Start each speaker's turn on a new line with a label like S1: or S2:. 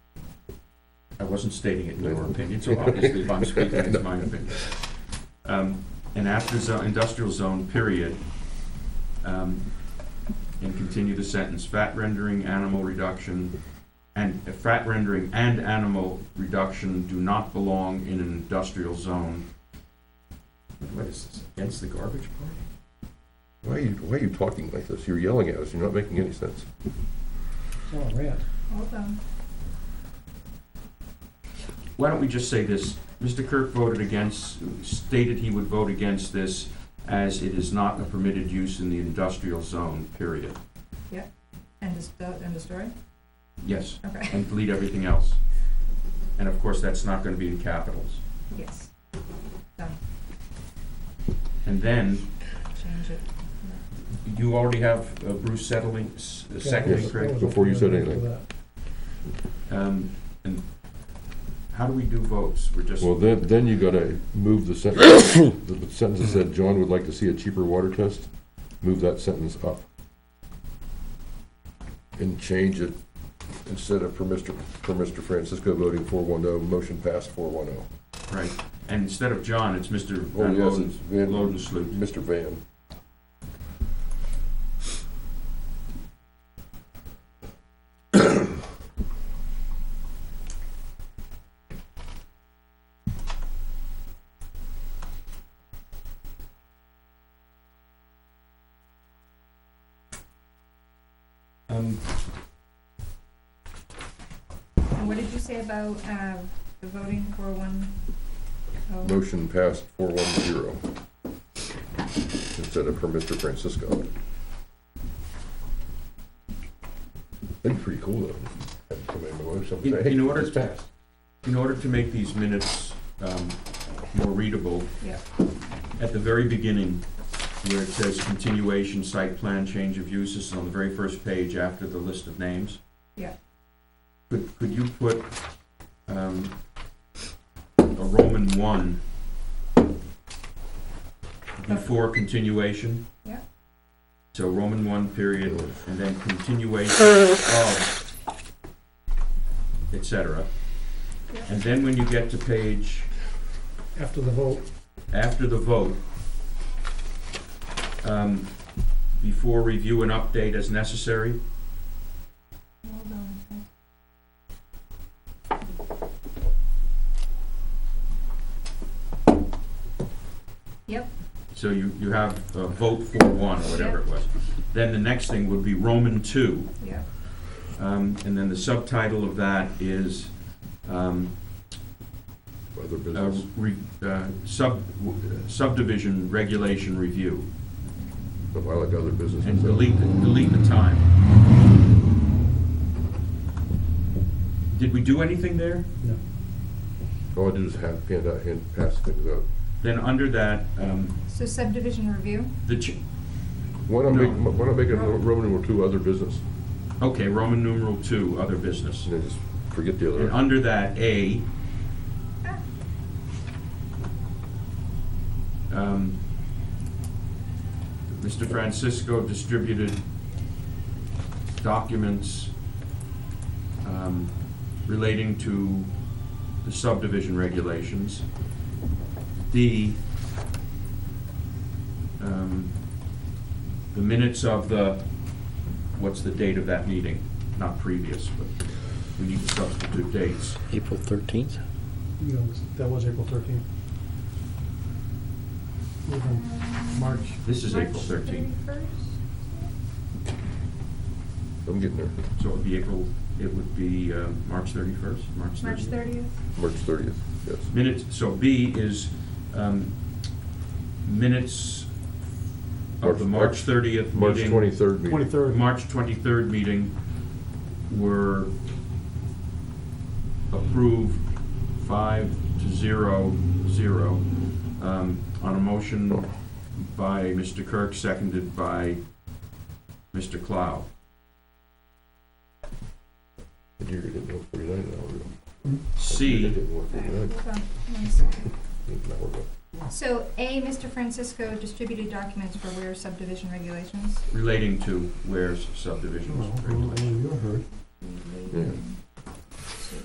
S1: I wasn't stating it in your opinion, so obviously if I'm speaking, it's my opinion. Um, An after zone, industrial zone, period. Um, And continue the sentence, fat rendering, animal reduction, and uh, fat rendering and animal reduction do not belong in an industrial zone. What is this, against the garbage part?
S2: Why are you, why are you talking like this? You're yelling at us, you're not making any sense.
S3: It's all red.
S4: Hold on.
S1: Why don't we just say this? Mr. Kirk voted against, stated he would vote against this as it is not a permitted use in the industrial zone, period.
S4: End of, sto- end of story?
S1: Yes,
S4: Okay,
S1: and delete everything else. And of course, that's not gonna be in capitals.
S4: yes.
S1: And then,
S4: Change it.
S1: you already have uh, Bruce settling, s- uh, seconding,
S2: Yes.
S1: Craig?
S2: Before you said anything.
S1: Um, and how do we do votes? We're just,
S2: Well, then, then you gotta move the sentence, the sentence that said, John would like to see a cheaper water test, move that sentence up. And change it, instead of per Mr., per Mr. Francisco voting four one oh, motion passed four one oh.
S1: right, and instead of John, it's Mr.
S2: Oh,
S1: Van
S2: yes, it's
S1: Loden,
S2: Van,
S1: Lodensloot.
S2: Mr. Van.
S1: Um,
S4: And what did you say about, uh, the voting for one? oh,
S2: Motion passed four one zero. Instead of per Mr. Francisco. That'd be pretty cool though. Have to come in, my wife, something,
S1: In-
S2: say, hey,
S1: in order-
S2: it's passed.
S1: In order to make these minutes um, more readable,
S4: Yeah,
S1: at the very beginning, where it says continuation, site plan, change of uses, on the very first page after the list of names.
S4: Yeah.
S1: Could, could you put um, a Roman one before continuation?
S4: Yeah.
S1: So Roman one period, and then continuation of, et cetera.
S4: Yeah.
S1: And then when you get to page
S3: After the vote,
S1: after the vote, um, before review and update as necessary,
S4: hold on. a sec. Yep,
S1: so you, you have uh vote for one, or whatever it was. Then the next thing would be Roman two,
S4: yeah,
S1: um, and then the subtitle of that is, um,
S2: Other
S1: uh,
S2: business.
S1: re, uh, sub, w- uh, subdivision regulation review,
S2: I like other business.
S1: and delete, the- delete the time. Did we do anything there?
S3: no.
S2: All I do is hand, hand out, hand, pass things out.
S1: Then under that, um,
S4: so subdivision review,
S1: the ch-
S2: Why not
S1: No.
S2: make, why not make a Roman numeral two, other business?
S1: Okay, Roman numeral two, other business.
S2: And then just forget the
S1: And
S2: other.
S1: under that, A. um, Mr. Francisco distributed documents um, relating to the subdivision regulations. D, um, the minutes of the, what's the date of that meeting? Not previous, but we need to substitute dates.
S5: April 13th?
S3: You know, that was April thirteenth.
S4: Uh,
S3: March,
S1: This is
S4: March
S1: April 13th,
S4: thirty-first?
S2: I'm getting there.
S1: so it would be April, it would be uh, March 31st, March 30th?
S4: March thirtieth?
S2: March thirtieth, yes.
S1: Minutes, so B is um, minutes of the
S2: March-
S1: March 30th meeting.
S2: March twenty-third meeting.
S3: twenty-third.
S1: March 23rd meeting were approved five to zero, zero, um, on a motion by Mr. Kirk, seconded by Mr. Clow.
S2: You're getting one forty-nine an hour ago. You're
S1: C,
S2: getting one forty-nine
S4: Hold on, one second.
S2: an hour ago.
S4: So, A, Mr. Francisco distributed documents for where subdivision regulations?
S1: relating to where's subdivisions.
S3: You heard.
S2: Yeah.